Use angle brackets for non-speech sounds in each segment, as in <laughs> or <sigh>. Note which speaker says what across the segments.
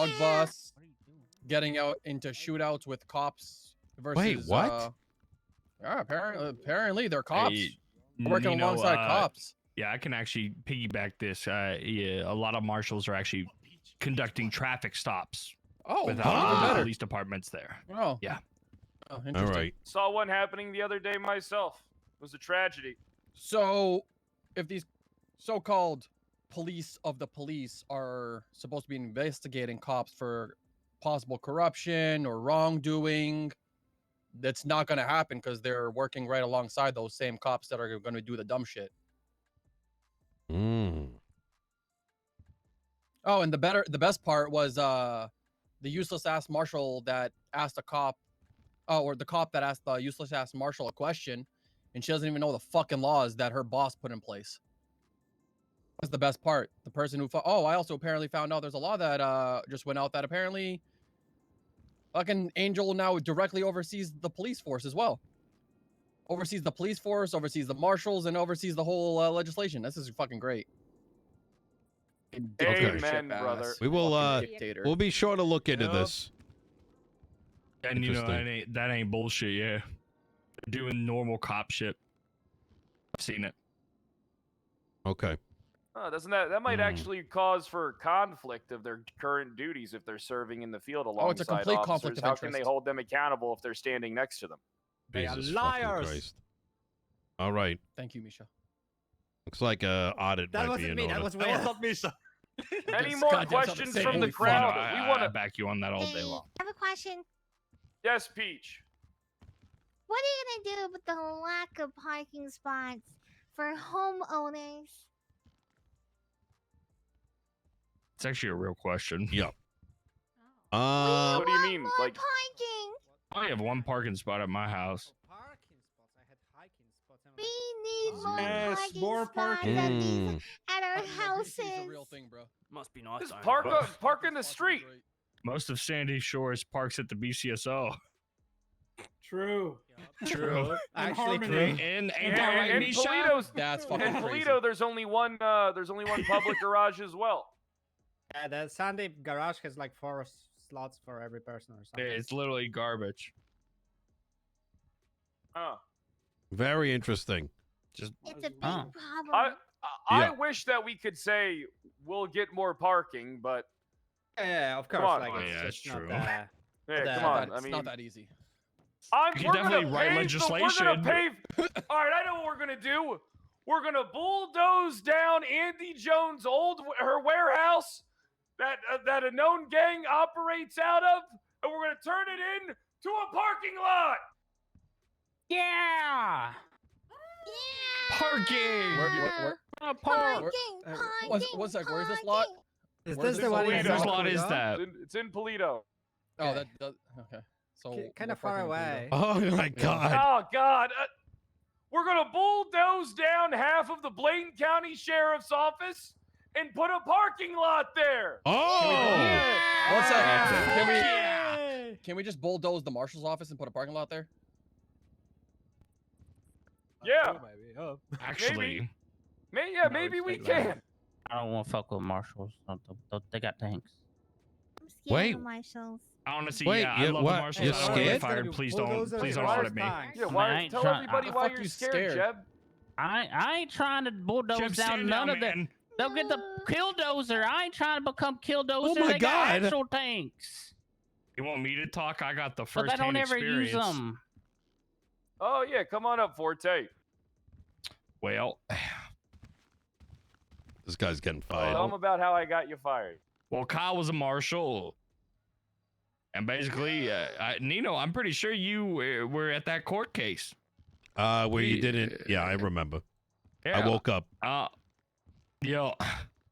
Speaker 1: Dog boss getting out into shootouts with cops versus.
Speaker 2: what?
Speaker 1: Uh, yeah, apparently, apparently they're cops.
Speaker 3: Hey,
Speaker 1: working
Speaker 3: you know,
Speaker 1: alongside
Speaker 3: uh,
Speaker 1: cops.
Speaker 3: Yeah, I can actually piggyback this. Uh, yeah, a lot of marshals are actually conducting traffic stops
Speaker 1: Oh,
Speaker 3: without
Speaker 1: even
Speaker 2: wow.
Speaker 3: the
Speaker 1: better.
Speaker 3: police departments there.
Speaker 1: Oh,
Speaker 3: Yeah.
Speaker 1: Oh,
Speaker 2: All
Speaker 1: interesting.
Speaker 2: right.
Speaker 4: Saw one happening the other day myself. It was a tragedy.
Speaker 1: So, if these so-called police of the police are supposed to be investigating cops for possible corruption or wrongdoing, that's not going to happen because they're working right alongside those same cops that are going to do the dumb shit.
Speaker 2: Mm.
Speaker 1: Oh, and the better, the best part was uh, the useless ass marshal that asked a cop, oh, or the cop that asked the useless ass marshal a question, and she doesn't even know the fucking laws that her boss put in place. That's the best part. The person who, fo- oh, I also apparently found out there's a law that uh just went out that apparently, fucking Angel now directly oversees the police force as well. Oversees the police force, oversees the marshals, and oversees the whole uh, legislation. This is fucking great. Fucking
Speaker 4: Okay.
Speaker 1: dictatorship
Speaker 4: Amen, brother.
Speaker 1: ass.
Speaker 2: We will. uh
Speaker 1: Fucking dictator.
Speaker 2: We'll be sure to look into
Speaker 3: Yep.
Speaker 2: this.
Speaker 3: And you know that
Speaker 2: Interesting.
Speaker 3: ain't that ain't bullshit. Yeah, they're doing normal cop shit. I've seen it.
Speaker 2: Okay.
Speaker 4: Huh, doesn't that that might
Speaker 2: Hmm.
Speaker 4: actually cause for conflict of their current duties if they're serving in the field alongside
Speaker 1: Oh, it's a complete
Speaker 4: officers?
Speaker 1: conflict of
Speaker 4: How can they
Speaker 1: interest.
Speaker 4: hold them accountable if they're standing next to them?
Speaker 5: They are
Speaker 2: Jesus fucking
Speaker 5: liars.
Speaker 2: Christ. All right.
Speaker 1: Thank you, Misha.
Speaker 2: Looks like a audit
Speaker 5: That
Speaker 2: might be
Speaker 5: wasn't
Speaker 2: in
Speaker 5: me.
Speaker 2: order.
Speaker 5: That was
Speaker 6: That was
Speaker 5: Wham.
Speaker 6: not me, sir.
Speaker 4: Any
Speaker 1: This
Speaker 4: more
Speaker 1: goddamn sounds the
Speaker 4: questions
Speaker 1: same.
Speaker 4: from the
Speaker 1: Holy fuck.
Speaker 4: crowd?
Speaker 3: No, I,
Speaker 4: we want
Speaker 3: I
Speaker 4: to.
Speaker 3: back you on that all day
Speaker 7: Hey,
Speaker 3: long.
Speaker 7: I have a question.
Speaker 4: Yes, Peach.
Speaker 7: What are you gonna do with the lack of parking spots for homeowners?
Speaker 3: It's actually a real question.
Speaker 2: Uh,
Speaker 4: What do you
Speaker 7: want
Speaker 4: mean,
Speaker 7: More
Speaker 4: like-
Speaker 7: parking.
Speaker 3: I have one parking spot at my
Speaker 5: Oh,
Speaker 3: house.
Speaker 7: We need more
Speaker 6: Yes,
Speaker 7: parking
Speaker 6: more
Speaker 7: spots
Speaker 6: parking.
Speaker 7: at, these-
Speaker 2: mm,
Speaker 7: at our
Speaker 1: Parking
Speaker 7: houses.
Speaker 1: in the city is a real thing, bro.
Speaker 6: Must be nice.
Speaker 4: Just
Speaker 6: though.
Speaker 4: park
Speaker 3: But-
Speaker 4: up, park in the street.
Speaker 3: Most of Sandy Shores parks at the BCSO.
Speaker 6: True.
Speaker 3: <laughs> True.
Speaker 6: And
Speaker 5: Actually,
Speaker 6: harmony.
Speaker 5: true.
Speaker 3: And ain't
Speaker 4: And,
Speaker 3: that right,
Speaker 4: and
Speaker 3: Misha?
Speaker 4: Polito's.
Speaker 1: That's
Speaker 4: In
Speaker 1: fucking crazy.
Speaker 4: Polito, there's only one. Uh, there's only one public
Speaker 1: <laughs>
Speaker 4: garage as well.
Speaker 5: Yeah, the Sunday garage has like four s- slots for every person or something.
Speaker 3: It's literally garbage.
Speaker 4: Huh.
Speaker 2: very interesting.
Speaker 3: Just
Speaker 7: It's a big
Speaker 8: Ah.
Speaker 7: problem.
Speaker 4: I, I,
Speaker 2: Yeah.
Speaker 4: I wish that we could say we'll get more parking, but
Speaker 5: yeah, yeah, of course.
Speaker 4: Come on.
Speaker 5: Like,
Speaker 3: Oh,
Speaker 5: it's
Speaker 3: yeah,
Speaker 5: just
Speaker 3: it's true.
Speaker 5: Not, uh,
Speaker 4: hey,
Speaker 5: That-
Speaker 4: come
Speaker 1: Not
Speaker 4: on.
Speaker 1: that-
Speaker 4: I
Speaker 1: it's
Speaker 4: mean,
Speaker 1: not that easy.
Speaker 4: I'm,
Speaker 3: You
Speaker 4: we're
Speaker 3: definitely
Speaker 4: gonna
Speaker 3: write
Speaker 4: pave The, we're
Speaker 3: legislation.
Speaker 4: gonna pave. <laughs> All right, I know what we're gonna do. We're gonna bulldoze down Andy Jones' old her warehouse that uh, that a known gang operates out of, and we're gonna turn it in to a parking lot.
Speaker 6: Yeah.
Speaker 7: yeah.
Speaker 3: parking.
Speaker 1: Where- where- where-
Speaker 6: I'm
Speaker 7: Parking,
Speaker 1: where- uh,
Speaker 7: parking,
Speaker 1: one- one sec, where is this lot?
Speaker 7: parking.
Speaker 5: is
Speaker 1: Where's
Speaker 5: this the one? in
Speaker 3: Whose
Speaker 4: Toledo? Whose
Speaker 5: South
Speaker 3: lot is
Speaker 5: Korea?
Speaker 3: that?
Speaker 4: <laughs> It's in, it's in Polito.
Speaker 1: Oh, that
Speaker 5: Okay.
Speaker 1: does. Okay. So
Speaker 5: Ki- Kind
Speaker 1: we're
Speaker 5: of far
Speaker 1: fucking doing that.
Speaker 5: away.
Speaker 2: Oh
Speaker 5: <laughs>
Speaker 2: my God.
Speaker 4: Oh God. Uh, we're gonna bulldoze down half of the Blaine County Sheriff's Office and put a parking lot
Speaker 2: Uh,
Speaker 4: there.
Speaker 2: Oh.
Speaker 4: Yeah.
Speaker 1: One sec.
Speaker 4: Ah.
Speaker 2: Yeah.
Speaker 1: Can we
Speaker 6: Yeah.
Speaker 1: can we just bulldoze the marshal's office and put a parking lot there? Oh
Speaker 4: Yeah.
Speaker 3: Actually,
Speaker 4: May, yeah,
Speaker 8: No,
Speaker 4: maybe
Speaker 8: it's
Speaker 4: we
Speaker 8: like that.
Speaker 4: can.
Speaker 8: I don't want to fuck with marshals. Don't- don't- don't- They got tanks.
Speaker 7: I'm scared
Speaker 2: Wait.
Speaker 7: of marshals.
Speaker 3: honestly,
Speaker 2: Wait,
Speaker 3: yeah, I
Speaker 2: yeah,
Speaker 3: love
Speaker 2: what?
Speaker 3: the marshals.
Speaker 2: You're
Speaker 3: I don't wanna get
Speaker 2: scared?
Speaker 3: fired. Please don't.
Speaker 5: Bulldozer
Speaker 3: Please don't
Speaker 5: is
Speaker 3: audit me.
Speaker 5: tanks.
Speaker 4: Yeah,
Speaker 8: Man,
Speaker 4: why,
Speaker 8: I ain't
Speaker 4: tell
Speaker 8: trying-
Speaker 4: everybody
Speaker 1: I
Speaker 4: why
Speaker 1: fuck
Speaker 4: you're
Speaker 1: you
Speaker 4: scared,
Speaker 1: scared.
Speaker 4: Jeb.
Speaker 8: I I ain't trying to bulldoze
Speaker 3: Jeb,
Speaker 8: down
Speaker 3: stand
Speaker 8: none
Speaker 3: down,
Speaker 8: of that.
Speaker 3: man.
Speaker 8: They'll get the
Speaker 7: No.
Speaker 8: killdozer. I ain't trying to become killdozer.
Speaker 2: Oh my
Speaker 8: they got
Speaker 2: God.
Speaker 8: actual tanks,
Speaker 3: You want me to talk? I got the
Speaker 8: but
Speaker 3: first
Speaker 8: they
Speaker 3: hand
Speaker 8: don't ever
Speaker 3: experience.
Speaker 8: use them.
Speaker 4: Oh yeah, come on up, Forte.
Speaker 3: Well,
Speaker 2: This guy's getting fired.
Speaker 4: Tell him about how I got you fired.
Speaker 3: well, Kyle was a marshal, and basically, uh, I, Nino, I'm pretty sure you were, were at that court case.
Speaker 2: Uh, where you didn't? Yeah, I remember. I woke up.
Speaker 3: Uh, yo.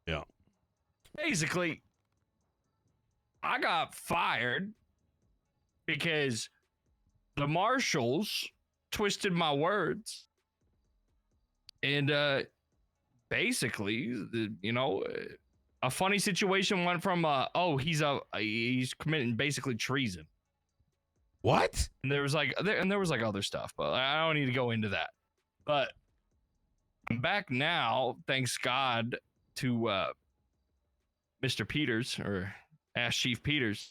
Speaker 2: Yeah.
Speaker 3: Basically, I got fired because the marshals twisted my words. And uh basically, the, you know, uh, a funny situation went from uh, oh, he's a he's committing basically treason.
Speaker 2: What?
Speaker 3: And there was like there, and there was like other stuff, but I don't need to go into that. But I'm back now, thanks God to uh Mr. Peters or Ask Chief Peters.